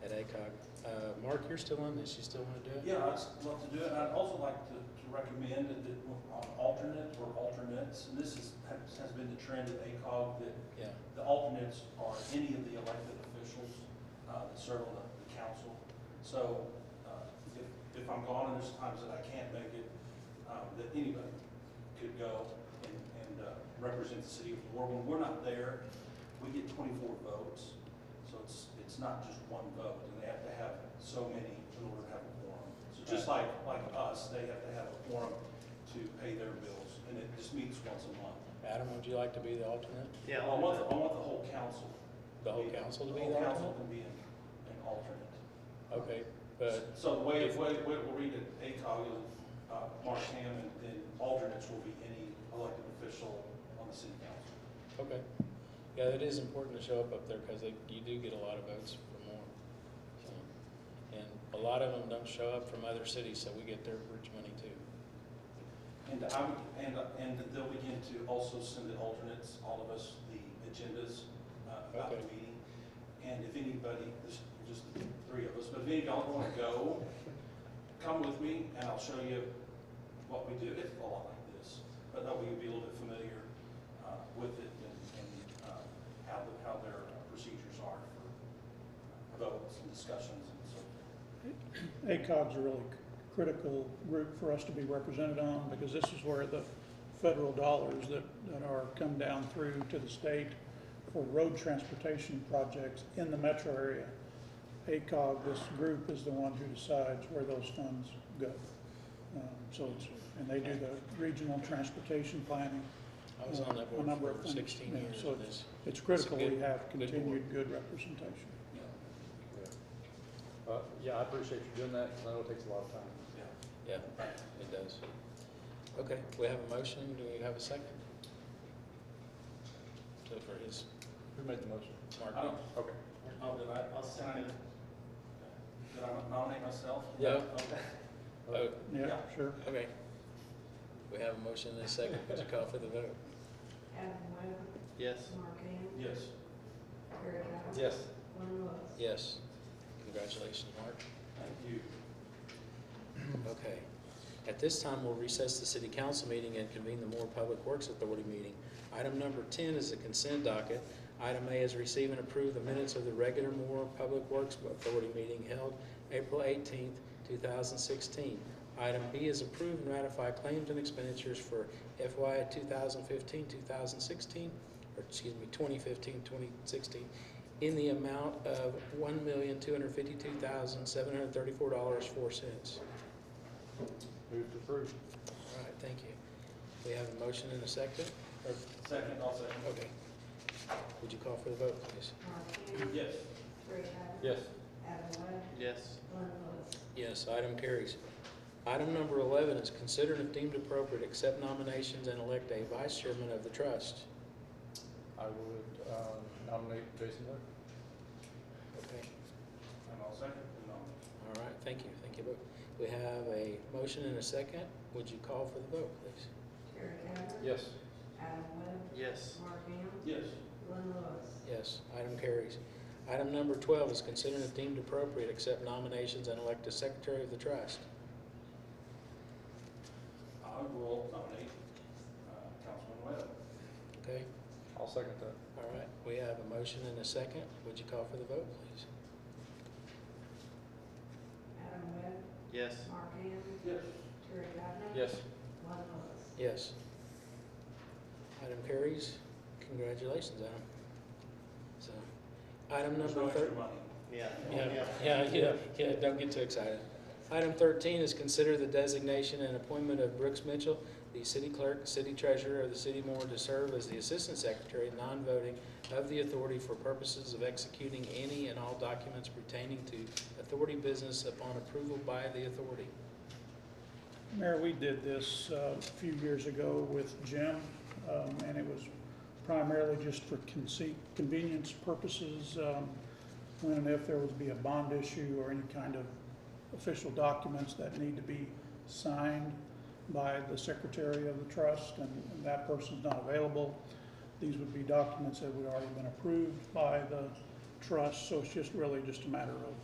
Uh, Mark, you're still on this, you still want to do it? Yeah, I'd love to do it, and I'd also like to, to recommend that, that on alternate or alternates, and this is, has, has been the trend at ACOG, that Yeah, the alternates are any of the elected officials, uh, that serve on the, the council. So, uh, if, if I'm gone and there's times that I can't make it, um, that anybody could go and, and, uh, represent the city of War. When we're not there, we get twenty-four votes, so it's, it's not just one vote, and they have to have so many in order to have a quorum. So just like, like us, they have to have a quorum to pay their bills, and it just meets once a month. Adam, would you like to be the alternate? Yeah, I I'll want, do the- I want the whole council. The whole council to be whole the council alternate? to be an, an alternate. Okay, but, So the way, way, way we'll read it, ACOG, is, uh, Mark Ham, and then alternates will be any elected official on the city council. okay. Yeah, it is important to show up up there because you do get a lot of votes for more. So, And a lot of them don't show up from other cities, so we get their bridge money too. And I would, and, and they'll begin to also send the alternates, all of us, the agendas, uh, about the Okay. meeting. And if anybody, this, just the three of us, but if any of y'all wanna go, come with me and I'll show you what we do. It's a lot like this, but that way you'll be a little bit familiar, uh, with it and, and, uh, how the, how their procedures are for votes and discussions and so forth. ACOG's a really c- critical group for us to be represented on because this is where the federal dollars that, that are come down through to the state for road transportation projects in the metro area. ACOG, this group is the one who decides where those funds go. Um, So it's, and they do the regional transportation planning. I was on that A number board of for things, sixteen yeah, years so of this. It's critical we good- have good board. continued good representation. Yeah, Uh, yeah, I appreciate you doing that, because I know it takes a lot of time. yeah. Yeah, it does. Okay, we have a motion, do we have a second? So for his, Who made the motion? I Mark, don't, Okay. Oh, did I, I'll second it. Did I nominate myself? Yeah. Okay. oh, Uh, Yeah, Yeah. sure. okay. We have a motion and a second, would you call for the vote? Adam Webb, Yes. Mark Ham, Yes. Terry Powell. Yes. Glenn Lewis. Yes. Congratulations, Mark. Thank you. Okay. At this time, we'll recess the city council meeting and convene the Moore Public Works Authority meeting. Item number ten is a consent docket. Item A is receive and approve the minutes of the regular Moore Public Works Authority meeting held April eighteenth, two thousand sixteen. Item B is approve and ratify claims and expenditures for FY 2015-2016, or excuse me, 2015-2016, in the amount of one million, two hundred fifty-two thousand, seven hundred thirty-four dollars, four cents. Move to approve. All right, thank you. We have a motion and a second? Or- Second, I'll second. Okay. Would you call for the vote, please? Mark Ham, Yes. Terry Powell. Yes. Adam Webb, Yes. Glenn Lewis. Yes, item carries. Item number 11 is considered if deemed appropriate, accept nominations and elect a vice chairman of the trust. I would, um, nominate Jason Wood. Okay. And I'll second. And I'll- All right, thank you, thank you both. We have a motion and a second. Would you call for the vote, please? Terry Powell. Yes. Adam Webb, Yes. Mark Ham, Yes. Glenn Lewis. Yes, item carries. Item number 12 is considered if deemed appropriate, accept nominations and elect a secretary of the trust. I will nominate, uh, Councilman Webb. Okay? I'll second that. All right, we have a motion and a second. Would you call for the vote, please? Adam Webb, Yes. Mark Ham, Yes. Terry Powell. Yes. Glenn Lewis. Yes. Item carries. Congratulations, Adam. So, item There's no number extra thirteen. money. Yeah. Yeah, yeah, yeah, yeah, don't get too excited. Item thirteen is consider the designation and appointment of Brooks Mitchell, the city clerk, city treasurer of the city of Moore, to serve as the assistant secretary, non-voting, of the authority for purposes of executing any and all documents pertaining to authority business upon approval by the authority. Mayor, we did this uh, a few years ago with Jim, um, and it was primarily just for conce- convenience purposes. um, When and if there would be a bond issue or any kind of official documents that need to be signed by the secretary of the trust, and and that person's not available, these would be documents that would already been approved by the trust, so it's just really just a matter of